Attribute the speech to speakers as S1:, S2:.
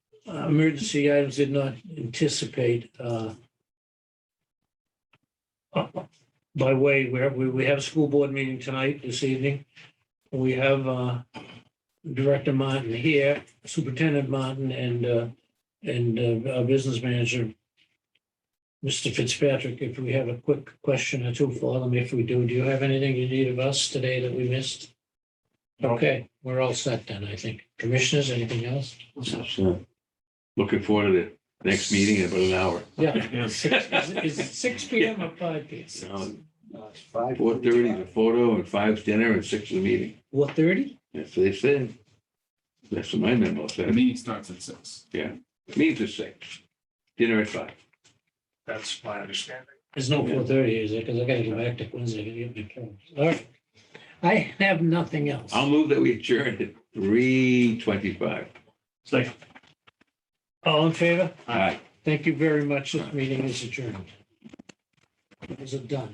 S1: uh, emergency items did not anticipate. uh, By way, we have, we we have a school board meeting tonight, this evening. We have uh, Director Martin here, Superintendent Martin, and, uh, and uh, our business manager, Mr. Fitzpatrick, if we have a quick question or two for them, if we do, do you have anything you need of us today that we missed? Okay, we're all set then, I think. Commissioners, anything else?
S2: So, uh, Looking forward to the next meeting in about an hour.
S1: Yeah.
S3: Yes.
S1: Six- Is it- is it six P M or five P M?
S2: Four thirty is a photo and five's dinner and six is a meeting.
S1: Four thirty?
S2: That's what they said. That's what my memo
S3: The
S2: said.
S3: meeting starts at six.
S2: Meeting's at six, dinner at five.
S4: That's my understanding.
S1: There's no four thirty, is it? Because I gotta go back to Quincy to get my phone. All right. I have nothing else.
S2: I'll move that we adjourn at three twenty-five.
S4: Second.
S1: All in favor?
S2: Aye.
S1: Thank you very much. This meeting is adjourned. Is it done?